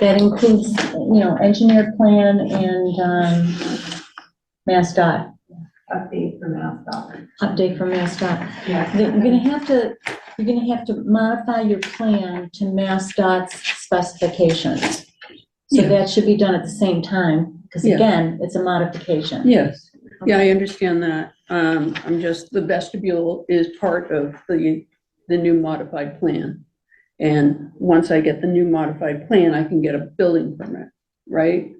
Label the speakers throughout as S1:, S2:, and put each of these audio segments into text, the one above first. S1: that includes, you know, engineer plan and, um, Mass dot,
S2: update for Mass Dot.
S1: update for Mass dot.
S2: Yeah.
S1: You're gonna have to, you're gonna have to modify your plan to Mass dot's specifications. So
S3: Yeah.
S1: that should be done at the same time, because
S3: Yeah.
S1: again, it's a modification.
S3: Yes, yeah, I understand that. Um, I'm just, the vestibule is part of the, the new modified plan. And once I get the new modified plan, I can get a building permit, right?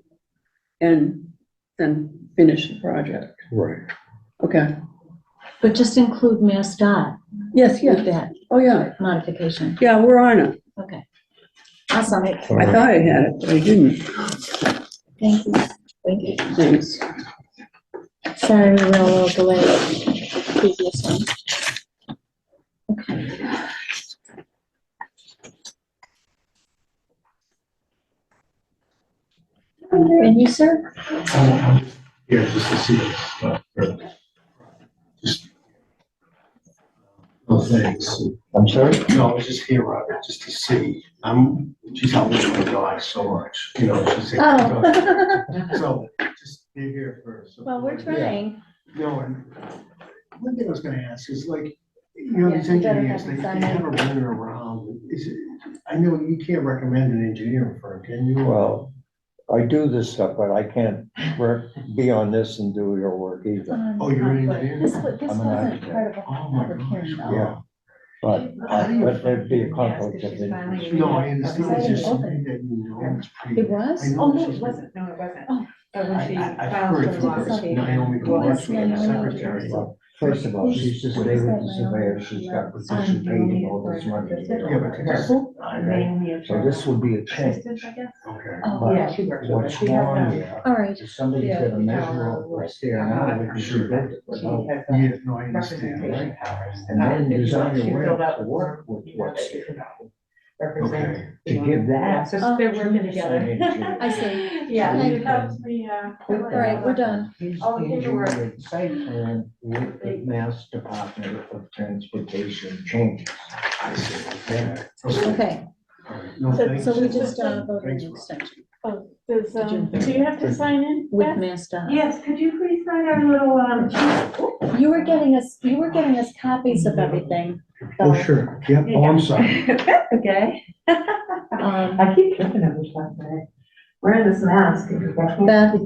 S3: And then finish the project.
S4: Right.
S3: Okay,
S1: But just include Mass dot
S3: yes,
S1: with
S3: yeah,
S1: that
S3: oh, yeah,
S1: modification.
S3: yeah, we're on it.
S1: Okay. Awesome.
S3: I thought I had it, but I didn't.
S1: Thank you. Thank you.
S3: Thanks.
S1: Sorry, we were a little delayed. Previous one. Okay. And you, sir?
S4: Here, just to see this. uh, or- just- uh, No, thanks.
S5: I'm sorry?
S4: No, I was just here, Robert, just to see. I'm, she's helping my dog so much, you know, she's.
S1: Oh.
S4: So, just be here first.
S1: Well, we're trying.
S4: No, and one thing I was gonna ask is like, you know, these
S1: Yeah, you better
S4: engineers,
S1: have
S4: they
S1: it
S4: they
S1: done.
S4: have a runner around. Is it, I know you can't recommend an engineering firm, can you?
S5: Well, I do this stuff, but I can't work, be on this and do your work either.
S4: Oh, you're an engineer?
S1: um, This wa- this
S5: I'm an
S1: wasn't
S5: architect.
S1: part of a
S4: Oh, my
S1: public
S4: gosh,
S1: hearing, though.
S5: Yeah. But, uh, but there'd be a conflict of interest.
S4: No, I understand, it's just
S1: Open.
S4: something that you know, it's pretty.
S1: It was?
S4: I know
S2: Oh, no,
S4: she's
S2: it
S4: been-
S2: wasn't, no, it wasn't.
S1: Oh.
S2: But when she
S4: I, I, I've
S2: filed
S4: heard
S2: for
S4: from
S2: loss
S4: her,
S2: statement,
S4: Naomi
S2: well,
S4: Demarchi,
S1: yeah,
S4: the
S1: no, no,
S4: secretary.
S1: no.
S5: First of all, she's just there with the surveyor, she's got
S2: Um,
S5: position paid and all this money.
S4: Yeah, but that's, I, okay,
S2: mainly a
S5: So this would be a change.
S2: assistant, I guess.
S1: Oh,
S2: Yeah,
S5: But
S2: she works with us.
S5: what's
S2: She has
S5: wrong
S2: a-
S5: here,
S1: all right.
S5: if somebody's gonna measure up what's there now, we can shoot it.
S2: she has a
S4: yeah, no, I understand, right?
S2: representation powers.
S5: And then
S2: Uh,
S5: design
S2: she
S5: a way
S2: filled out
S5: to
S2: the
S5: work
S2: form,
S5: with
S2: you know,
S5: what's
S2: that you
S5: there.
S2: can Represent.
S4: Okay,
S5: To give
S2: Yeah,
S5: that,
S2: so they're working together.
S1: I see.
S2: Yeah,
S5: Okay.
S2: it helps me, uh.
S5: All
S1: All right, we're done.
S5: he's
S2: Oh,
S5: the
S2: here you
S5: engineer
S2: are.
S5: of site plan with the Mass Department of Transportation changes.
S4: I see, okay.
S1: Okay,
S4: All right, No,
S6: So-
S4: thanks.
S1: so we just uh, voted
S4: Thanks,
S1: an
S4: Rob.
S1: extension
S6: Does,
S1: Did you-
S6: um, do you have to sign in?
S1: with uh,
S6: Beth?
S1: Mass dot.
S2: Yes, could you please sign our little, um,
S1: You were getting us, you were getting us copies of everything.
S4: Oh, sure, yeah, oh, I'm sorry.
S2: That's okay.
S1: Um,
S2: I keep tripping over stuff today. Wearing this mask.
S1: Beth,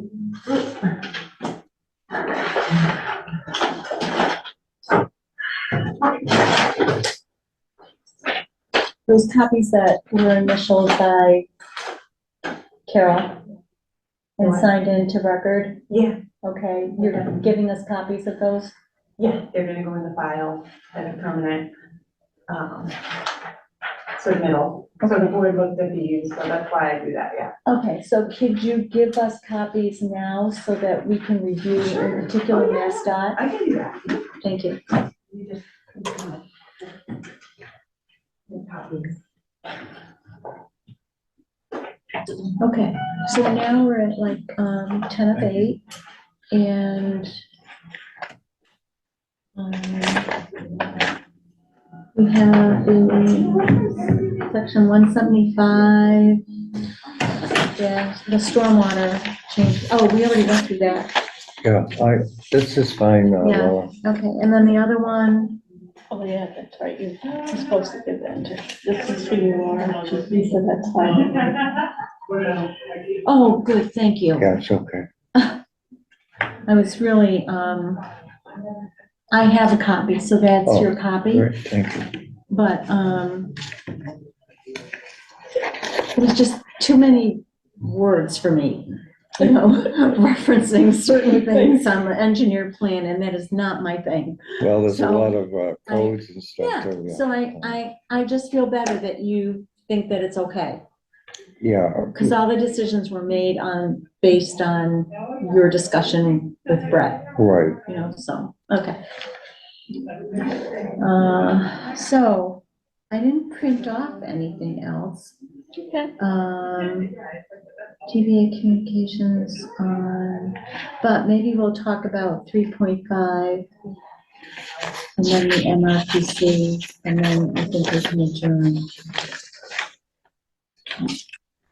S1: those copies that were initialed by Carol and
S2: What?
S1: signed into record,
S2: Yeah,
S1: okay, you're giving us copies of those?
S2: yeah, they're gonna go in the file at a permanent, um, submittal. So the board looked at these, so that's why I do that, yeah.
S1: Okay, so could you give us copies now so that we can review
S2: Sure.
S1: in particular
S2: Oh, yeah.
S1: MassDOT?
S2: I can do that.
S1: Thank you.
S2: You just. The copies.
S1: Okay, so now we're at like, um, ten of eight, and, um, we have the section one seventy-five, yeah, the stormwater change, oh, we already went through that,
S5: Yeah, I, this is fine, uh,
S1: Yeah.
S5: Laura.
S1: okay, and then the other one,
S6: Oh, yeah, that's right, you- you're supposed to give that to, this is who you are, just Lisa, that's fine.
S1: oh, good, thank you.
S5: yeah, it's okay.
S1: I was really, um, I have a copy, so that's your copy,
S5: Oh, Great, thank you.
S1: but, um, it was just too many words for me, you know, referencing certain things on the engineer plan, and that is not my thing.
S5: Well, there's a
S1: So,
S5: lot of uh,
S1: I-
S5: codes and stuff,
S1: Yeah,
S5: too, yeah.
S1: so I, I, I just feel better that you think that it's okay,
S5: Yeah,
S1: because all the decisions were made on, based on your discussion with Brett.
S5: right.
S1: you know, so, okay. Uh, so, I didn't print off anything else.
S6: Okay.
S1: Um, TBA communications on, but maybe we'll talk about three point five. And then the MRPC, and then I think we can adjourn.